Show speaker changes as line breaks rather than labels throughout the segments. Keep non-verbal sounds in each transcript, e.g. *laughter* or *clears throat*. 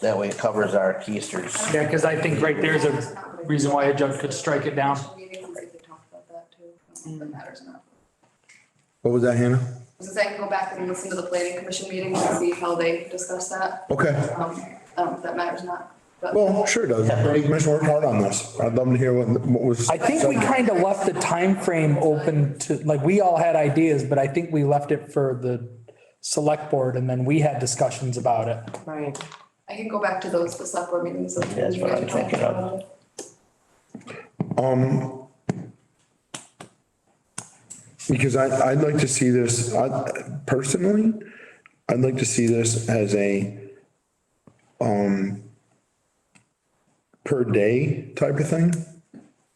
That way it covers our keisters.
Yeah, because I think right there's a reason why a judge could strike it down.
Meetings, I think we talked about that too. I don't know if That matters enough.
What was that, Hannah?
Because I can go back and listen to the planning commission meetings and see how they discuss that.
Okay.
Um, I don't know if that matters or not, but.
Well, sure does. Planning commission worked hard on this. I'd love to hear what, what was.
I think we kind of left the time frame open to, like, we all had ideas, but I think we left it for the select board and then we had discussions about it.
Right.
I can go back to those, the select board meetings. and
That's what
you guys
I'm
talked
thinking of.
about it.
Um, because I, I'd like to see this, I, personally, I'd like to see this as a, um, per day type of thing.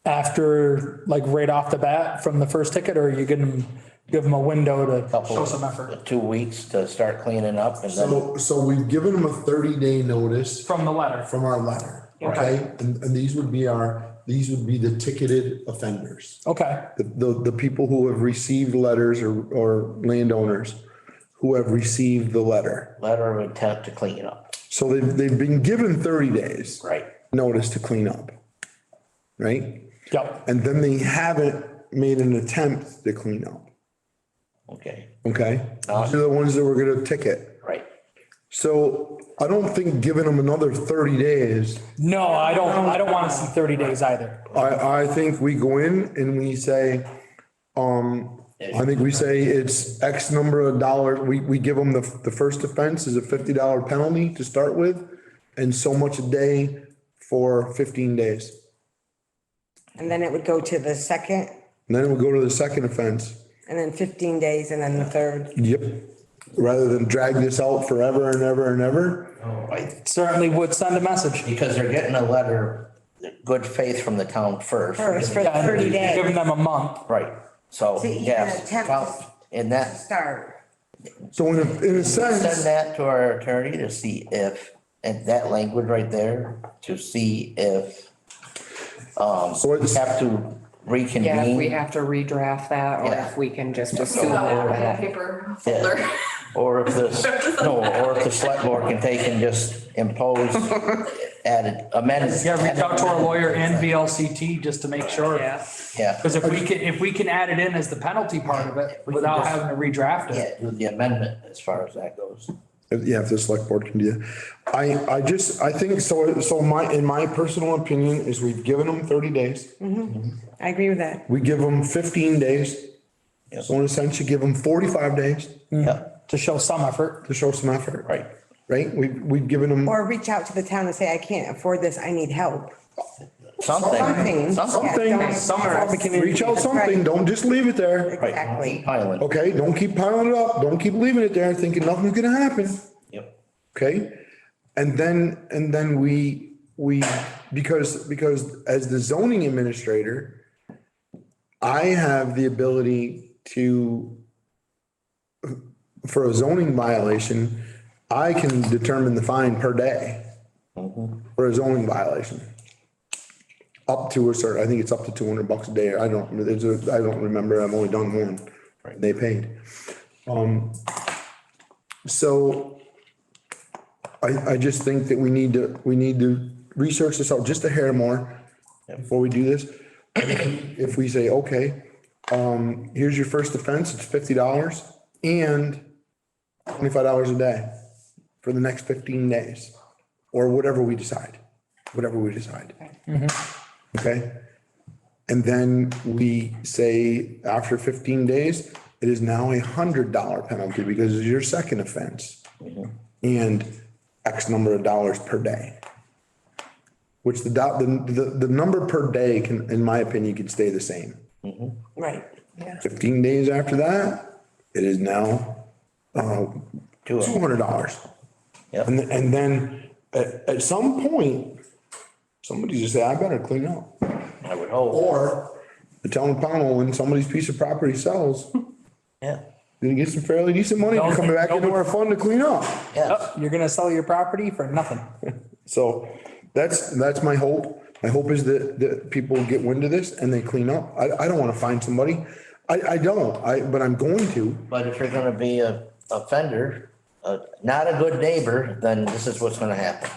After, like, right off the bat from the first ticket, or you give them, give them a window to
Couple
show some effort
Two weeks to start cleaning up and then
So, so we've given them a thirty day notice
from the letter.
from our letter, okay? And, and these would be our, these would be the ticketed offenders.
Okay,
the, the, the people who have received letters or, or landowners who have received the letter.
letter of intent to clean up.
So they've, they've been given thirty days.
Right.
Notice to clean up. Right?
yep,
And then they haven't made an attempt to clean up.
Okay,
Okay? These are the ones that we're gonna ticket.
right.
So I don't think giving them another thirty days,
no, I don't, I don't want to see thirty days either.
I, I think we go in and we say, um, I think we say it's X number of dollars, we, we give them the, the first offense is a fifty dollar penalty to start with. And so much a day for fifteen days.
And then it would go to the second,
And then we'll go to the second offense.
and then fifteen days, and then the third.
Yep. Rather than drag this out forever and ever and ever.
Right.
Certainly would send a message.
Because they're getting a letter, good faith from the town first.
First, for
Yeah,
thirty days
Giving them a month.
Right, so,
To even
yes,
attempt
found- and
to
that,
start.
So in a, in a
send
sense,
that to our attorney to see if, and that language right there, to see if
so
we
it's,
have to reconvene.
Yeah, if we have to redraft that, or
Yeah.
if we can just assume
So I have a
that.
paper folder.
Or if this, no, or if the select board can take and just impose added amendments.
Yeah, reach out to our lawyer and
be.
VLCT just to make sure.
Yeah.
Yeah,
Because if we can, if we can add it in as the penalty part of it without having to redraft it.
yeah, do the amendment as far as that goes.
yeah, if the select board can do that. I, I just, I think, so, so my, in my personal opinion is we've given them thirty days.
I agree with that.
We give them fifteen days. So in a sense, you give them forty-five days
Yeah,
to show some effort.
to show some effort.
right.
Right? We, we've given them,
Or reach out to the town and say, I can't afford this, I need help.
Something,
Something.
something,
Something,
Yeah, don't-
somewhere.
Help the community.
reach out
That's
something,
right.
don't just leave it there.
right.
Exactly.
Island.
Okay, don't keep piling it up, don't keep leaving it there thinking nothing's gonna happen,
Yep.
okay? And then, and then we, we, because, because as the zoning administrator, I have the ability to, for a zoning violation, I can determine the fine per day for a zoning violation. Up to a certain, I think it's up to two hundred bucks a day. I don't, there's a, I don't remember. I've only done one. They paid. Um, so I, I just think that we need to, we need to research this out just a hair more before we do this. *clears throat* If we say, okay, um, here's your first offense, it's fifty dollars and twenty-five dollars a day for the next fifteen days or whatever we decide, whatever we decide. Okay? And then we say after fifteen days, it is now a hundred dollar penalty because it's your second offense. And X number of dollars per day. Which the dot, the, the, the number per day can, in my opinion, can stay the same.
Right, yeah.
Fifteen days after that, it is now, uh,
Two of
two
them.
hundred dollars.
Yep.
And, th- and then at, at some point, somebody just say, I better clean up.
I would hope,
Or the town of Pownell, when somebody's piece of property sells,
yeah,
they get some fairly decent money to come back into our fund to clean up.
yeah.
You're gonna sell your property for nothing.
So that's, that's my hope. My hope is that, that people get wind of this and they clean up. I, I don't want to find somebody. I, I don't, I, but I'm going to.
But if you're gonna be a offender, uh, not a good neighbor, then this is what's gonna happen.